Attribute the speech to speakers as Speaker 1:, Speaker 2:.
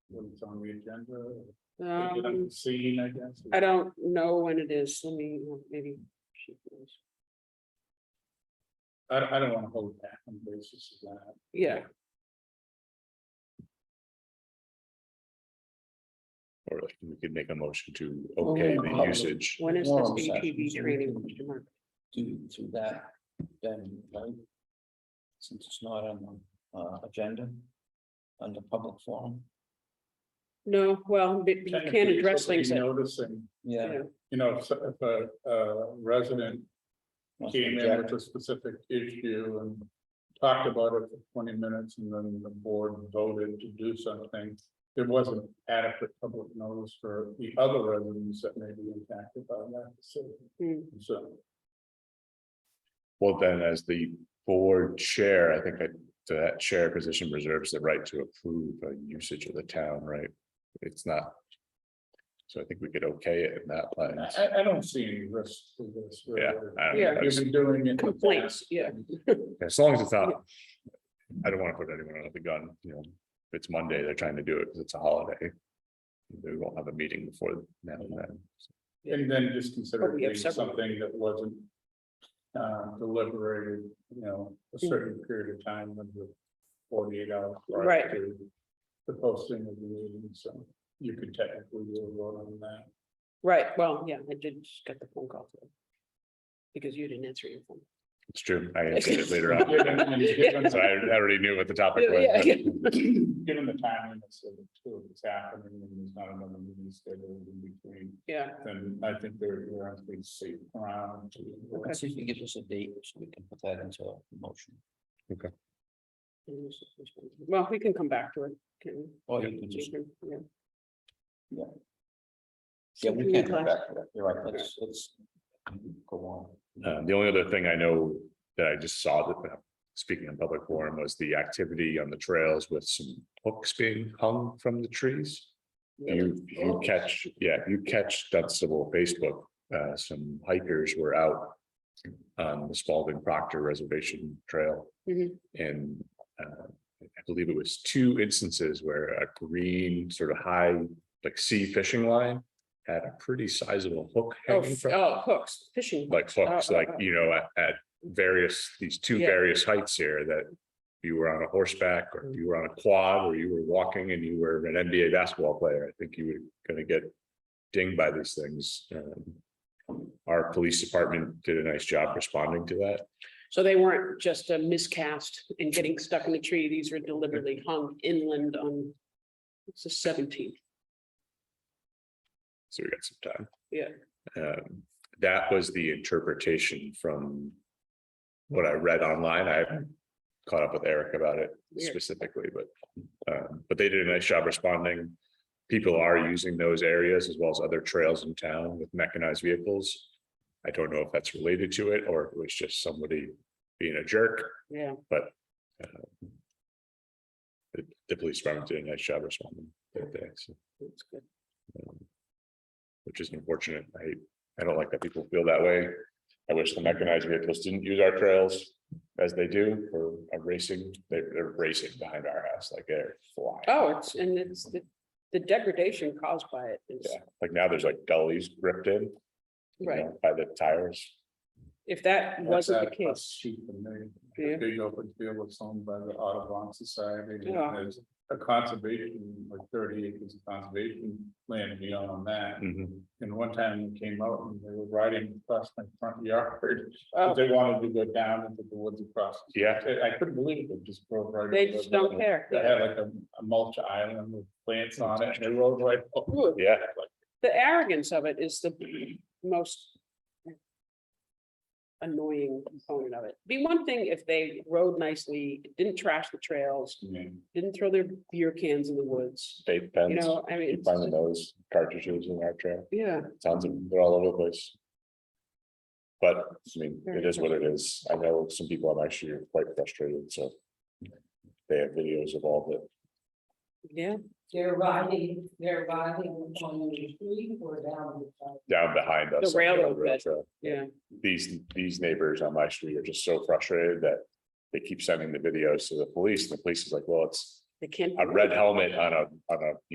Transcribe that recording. Speaker 1: when it's on the agenda. or get
Speaker 2: Um,
Speaker 1: it Seen, I guess.
Speaker 2: I don't know when it is, let me, well, maybe. she knows.
Speaker 1: I, I don't wanna hold back on the basis of that.
Speaker 2: Yeah,
Speaker 3: Or like, we could make a motion to okay the
Speaker 4: Oh.
Speaker 3: usage.
Speaker 2: when is this
Speaker 4: Forum session,
Speaker 2: ATV
Speaker 4: so we
Speaker 2: training?
Speaker 4: can-
Speaker 2: Mr. Mark?
Speaker 4: do to that, then, right? Since it's not on the uh agenda, under public forum,
Speaker 2: No, well, but you can't
Speaker 1: Technically,
Speaker 2: address
Speaker 1: somebody
Speaker 2: things that,
Speaker 1: Noticing,
Speaker 4: yeah.
Speaker 2: yeah,
Speaker 1: you know, if, if a, uh, resident
Speaker 4: must
Speaker 1: came in
Speaker 4: object.
Speaker 1: with a specific issue and. Talked about it for twenty minutes and then the board voted to do something. There wasn't adequate public notice for the other residents that may be impacted by that decision,
Speaker 2: hmm,
Speaker 1: so.
Speaker 3: Well, then, as the board chair, I think that that chair position reserves the right to approve a usage of the town, right? It's not. So I think we could okay it in that
Speaker 1: I-
Speaker 3: lens.
Speaker 1: I, I don't see any risk to this. really.
Speaker 3: Yeah, I-
Speaker 2: Yeah.
Speaker 1: You've been doing it. in the
Speaker 2: complaints,
Speaker 1: past.
Speaker 2: yeah,
Speaker 3: As long as it's not. I don't want to put anyone under the gun, you know, if it's Monday, they're trying to do it because it's a holiday. We won't have a meeting before now and then.
Speaker 1: And then just consider
Speaker 2: But
Speaker 1: it
Speaker 2: we have
Speaker 1: being
Speaker 2: several.
Speaker 1: something that wasn't. Uh, deliberated, you know, a certain period of time under forty-eight hours. prior
Speaker 2: Right.
Speaker 1: to The posting of the meeting, so you could technically do a vote on that.
Speaker 2: right, well, yeah, I did just get the phone call. today. Because you didn't answer your phone.
Speaker 3: It's true. I answered it later on.
Speaker 1: Given and given-
Speaker 3: So I I already knew what the topic was.
Speaker 2: Yeah,
Speaker 3: but-
Speaker 2: yeah.
Speaker 1: Given the timeliness of it, too, it's happening, and there's not another meeting scheduled in between,
Speaker 2: Yeah,
Speaker 1: then I think they're, they're on pretty safe ground. to-
Speaker 4: Let's see if you give us a date, so we can put that into a motion,
Speaker 2: and this is the first one. well, we can come back to it, can
Speaker 4: or
Speaker 2: we?
Speaker 4: Oh, you can just,
Speaker 2: Yeah.
Speaker 4: Yeah. yeah, we can't come back to that, you're right, let's, let's go on.
Speaker 3: Uh, the only other thing I know that I just saw that, uh, speaking in public forum, was the activity on the trails with some hooks being hung from the trees. You, you catch, yeah, you catch Dunstable Facebook, uh, some hikers were out on the Spalding Proctor Reservation Trail.
Speaker 2: Mhm.
Speaker 3: And, uh, I believe it was two instances where a green sort of high, like sea fishing line had a pretty sizable hook
Speaker 2: Oh,
Speaker 3: hanging
Speaker 2: f-
Speaker 3: from.
Speaker 2: oh, hooks, fishing. hooks.
Speaker 3: like hooks,
Speaker 2: Oh, oh,
Speaker 3: like,
Speaker 2: oh.
Speaker 3: you know, at, at various, these two
Speaker 2: Yeah.
Speaker 3: various heights here that. You were on a horseback or you were on a quad or you were walking and you were an NBA basketball player. I think you were gonna get dinged by these things. Um, Our police department did a nice job responding to that.
Speaker 2: So they weren't just a miscast and getting stuck in a tree. These were deliberately hung inland on. It's the seventeenth.
Speaker 3: So we got some time.
Speaker 2: Yeah.
Speaker 3: Um, that was the interpretation from. What I read online, I haven't caught up with Eric about it
Speaker 2: Weird.
Speaker 3: specifically, but, um, but they did a nice job responding. People are using those areas as well as other trails in town with mechanized vehicles. I don't know if that's related to it or if it was just somebody being a jerk.
Speaker 2: Yeah,
Speaker 3: The, the police department did a nice job responding that day, so.
Speaker 2: that's good.
Speaker 3: um, Which is unfortunate. I, I don't like that people feel that way. I wish the mechanized vehicles didn't use our trails as they do for a racing. They're, they're racing behind our house like they're flying.
Speaker 2: Oh, it's, and it's the, the degradation caused by it is,
Speaker 3: Yeah, like now there's like gullies ripped in. you
Speaker 2: right.
Speaker 3: know, By the tires.
Speaker 2: If that wasn't the
Speaker 1: That's a- a
Speaker 2: case,
Speaker 1: sheet and they-
Speaker 2: Yeah.
Speaker 1: Big open field was owned by the Audubon Society. and
Speaker 2: Yeah.
Speaker 1: There's a conservation, like thirty acres of conservation land beyond
Speaker 3: Hmm.
Speaker 1: that. And one time they came out and they were riding across my front yard.
Speaker 2: oh,
Speaker 1: They wanted to go down into the woods across.
Speaker 3: Yeah,
Speaker 1: I I couldn't believe it, just drove right.
Speaker 2: they
Speaker 1: over
Speaker 2: just
Speaker 1: the-
Speaker 2: don't care.
Speaker 1: They had like a a mulch island with plants on it and they rode right. over
Speaker 2: Ooh,
Speaker 3: yeah,
Speaker 1: it, like,
Speaker 2: The arrogance of it is the most. Annoying component of it. Be one thing if they rode nicely, didn't trash the trails,
Speaker 1: you know,
Speaker 2: didn't throw their beer cans in the woods.
Speaker 3: they
Speaker 2: You
Speaker 3: pens.
Speaker 2: know, I mean,
Speaker 3: Keep
Speaker 2: it's
Speaker 3: finding
Speaker 2: just-
Speaker 3: those cartridges in our trail.
Speaker 2: yeah.
Speaker 3: Tons of, they're all over the place. But I mean, it is what it is. I know some people on my street are quite frustrated, so. They have videos of all the
Speaker 2: Yeah,
Speaker 5: They're riding, they're riding on the street or down the side.
Speaker 3: down behind us.
Speaker 2: The
Speaker 3: on
Speaker 2: railroad
Speaker 3: rail
Speaker 2: bed.
Speaker 3: trail.
Speaker 2: yeah,
Speaker 3: These, these neighbors on my street are just so frustrated that they keep sending the videos to the police. and The police is like, well, it's
Speaker 2: they can't.
Speaker 3: a red helmet on a, on a